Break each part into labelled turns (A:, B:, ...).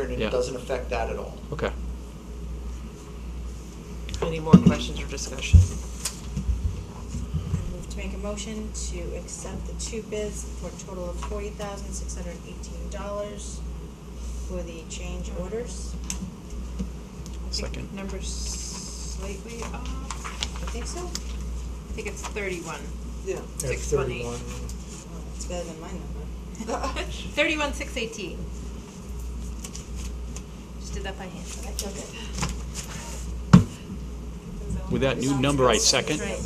A: thirty,
B: Yeah.
A: it doesn't affect that at all.
B: Okay.
C: Any more questions or discussion?
D: I move to make a motion to accept the two bids for a total of forty thousand six hundred eighteen dollars for the change orders.
E: I think
B: Second.
E: number's slightly off.
D: You think so?
E: I think it's thirty-one.
C: Yeah.
E: Six one eight.
D: Well, it's better than my number.
E: Thirty-one, six eighteen. Just did that by hand.
D: I took it.
B: With that new number, I second.
E: Right.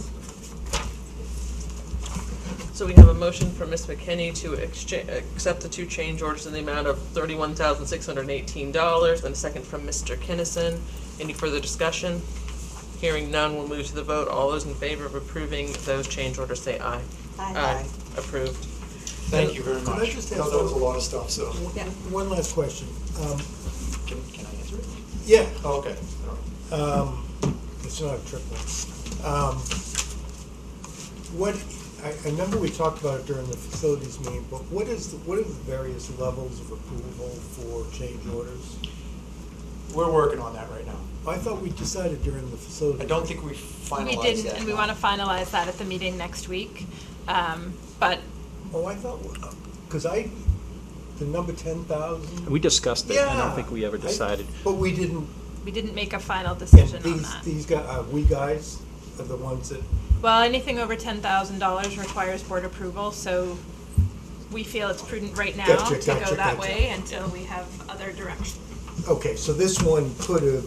C: So we have a motion from Ms. McKinney to exchange, accept the two change orders in the amount of thirty-one thousand six hundred and eighteen dollars, and a second from Mr. Kinnison. Any further discussion? Hearing none, we'll move to the vote. All those in favor of approving those change orders, say aye.
D: Aye.
C: Approved.
A: Thank you very
F: Could I
A: much.
F: just
A: I know
F: ask
A: that was a
F: one-
A: lot of stuff, so,
D: Yeah.
F: One last question. Um,
A: can, can I answer it?
F: Yeah,
A: Oh, okay, all right.
F: um, it's not a triple. Um, What, I, I remember we talked about it during the facilities meeting, but what is, the- what are the various levels of approval for change orders?
A: We're working on that right now.
F: I thought we decided during the facility.
A: I don't think we finalized
G: We
A: that.
G: didn't, and we
A: no.
G: want to finalize that at the meeting next week. Um, But
F: Oh, I thought, because I, the number ten thousand?
B: We discussed it. I don't think we ever decided.
F: But we didn't,
G: we didn't make a final
F: and
G: decision on
F: these,
G: that.
F: these guys, uh, we guys are the ones that
G: Well, anything over ten thousand dollars requires board approval, so we feel it's prudent right now
F: Gotcha,
G: to
F: gotcha,
G: go that
F: gotcha.
G: way until we have other direction.
F: Okay, so this one could have,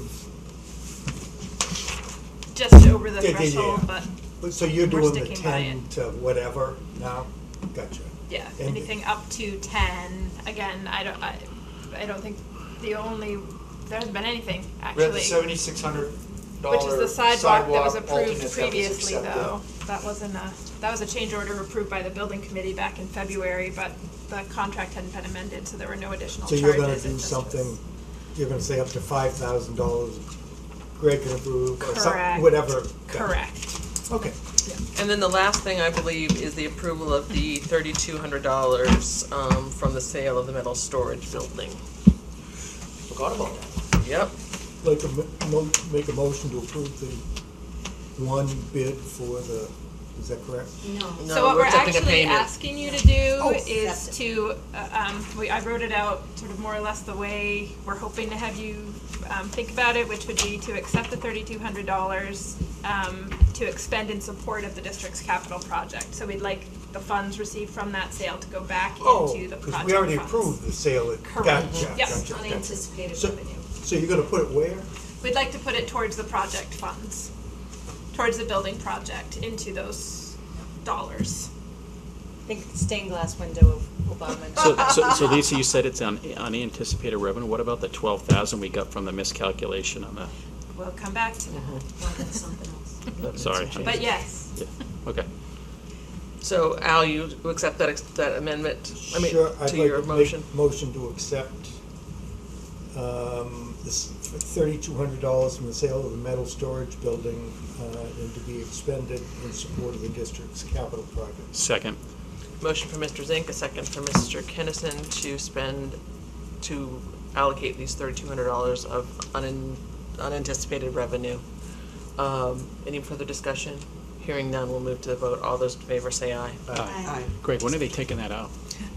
G: Just over the
F: Yeah, yeah, yeah.
G: threshold, but
F: but so you're
G: We're
F: doing the
G: sticking by
F: ten to whatever now? Gotcha.
G: yeah,
F: And-
G: anything up to ten, again, I don't, I, I don't think the only, there hasn't been anything,
A: We
G: actually.
A: had the seventy-six hundred dollar
G: Which is the sidewalk that was approved
A: alternate that was
G: previously,
A: accepted.
G: though. That wasn't a, that was a change order approved by the building committee back in February, but the contract hadn't been amended, so there were no additional
F: So
G: charges.
F: you're gonna
G: It
F: do
G: just was-
F: something, you're gonna say up to five thousand dollars, Greg can approve, or
G: Correct.
F: something, whatever. Gotcha.
G: Correct.
F: Okay,
C: And then the last thing I believe is the approval of the thirty-two hundred dollars, um, from the sale of the metal storage building.
A: Forgot about that.
C: Yep.
F: like, a mo- mo- make a motion to approve the one bid for the, is that correct?
D: No.
C: No,
G: So what
C: we're
G: we're
C: accepting a
G: actually
C: payment.
G: asking you to do
D: Oh,
G: is
D: that's
G: to, uh, um, we, I wrote it out sort of more or less the way we're hoping to have you, um, think about it, which would be to accept the thirty-two hundred dollars, um, to expend in support of the district's capital project. So we'd like the funds received from that sale to go back
F: Oh,
G: into the project funds.
F: because we already approved the sale, at-
G: Correct.
F: gotcha,
G: Yep.
F: gotcha, gotcha.
D: Unanticipated
F: So- So you're gonna put it where?
G: We'd like to put it towards the project funds, towards the building project, into those dollars.
D: Think of the stained glass window of Obama.
B: So, so, so Lisa, you said it's on unanticipated revenue. What about the twelve thousand we got from the miscalculation on the,
G: We'll come back to that.
C: Uh-huh.
D: something else.
B: sorry.
G: But yes,
B: Yeah, Okay.
C: So Al, you accept that, ex- that amendment, I mean,
F: Sure, I'd
C: to
F: like
C: your
F: make
C: motion?
F: Motion to accept, um, this thirty-two hundred dollars from the sale of the metal storage building, uh, and to be expended in support of the district's capital projects.
B: Second.
C: Motion for Mr. Zink, a second for Mr. Kennison to spend, to allocate these thirty-two hundred dollars of unan- unanticipated revenue. Um, any further discussion? Hearing none, we'll move to the vote. All those in favor say aye.
B: Aye. Greg, when are they taking that out?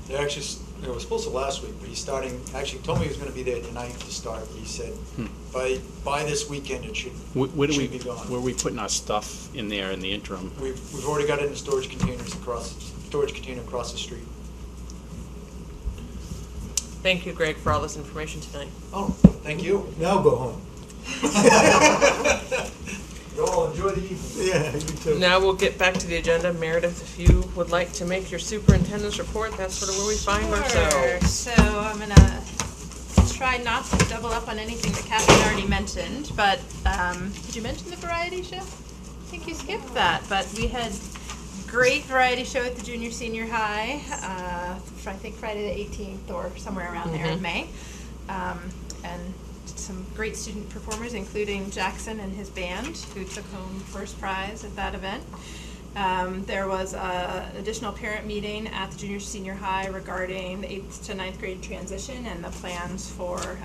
A: They actually, s- it was supposed to last week, but he's starting, actually told me he was gonna be there tonight to start, but he said, by, by this weekend, it should,
B: Hmm. Wh- Where do we,
A: should be gone.
B: where are we putting our stuff in there in the interim?
A: We've, we've already got it in storage containers across, storage container across the street.
C: Thank you, Greg, for all this information tonight.
A: Oh, thank you.
F: Now go home.
A: You all enjoy the evening.
F: Yeah, you too.
C: Now we'll get back to the agenda. Meredith, if you would like to make your superintendent's report, that's sort of where we find
G: Sure.
C: ourselves.
G: So I'm gonna try not to double up on anything that Catherine already mentioned, but, um, did you mention the variety show? I think you skipped that, but we had great variety show at the junior senior high, uh, fr- I think Friday the eighteenth or somewhere around there in May. Um, and some great student performers, including Jackson and his band, who took home first prize at that event. Um, there was a additional parent meeting at the junior senior high regarding the eighth to ninth grade transition and the plans for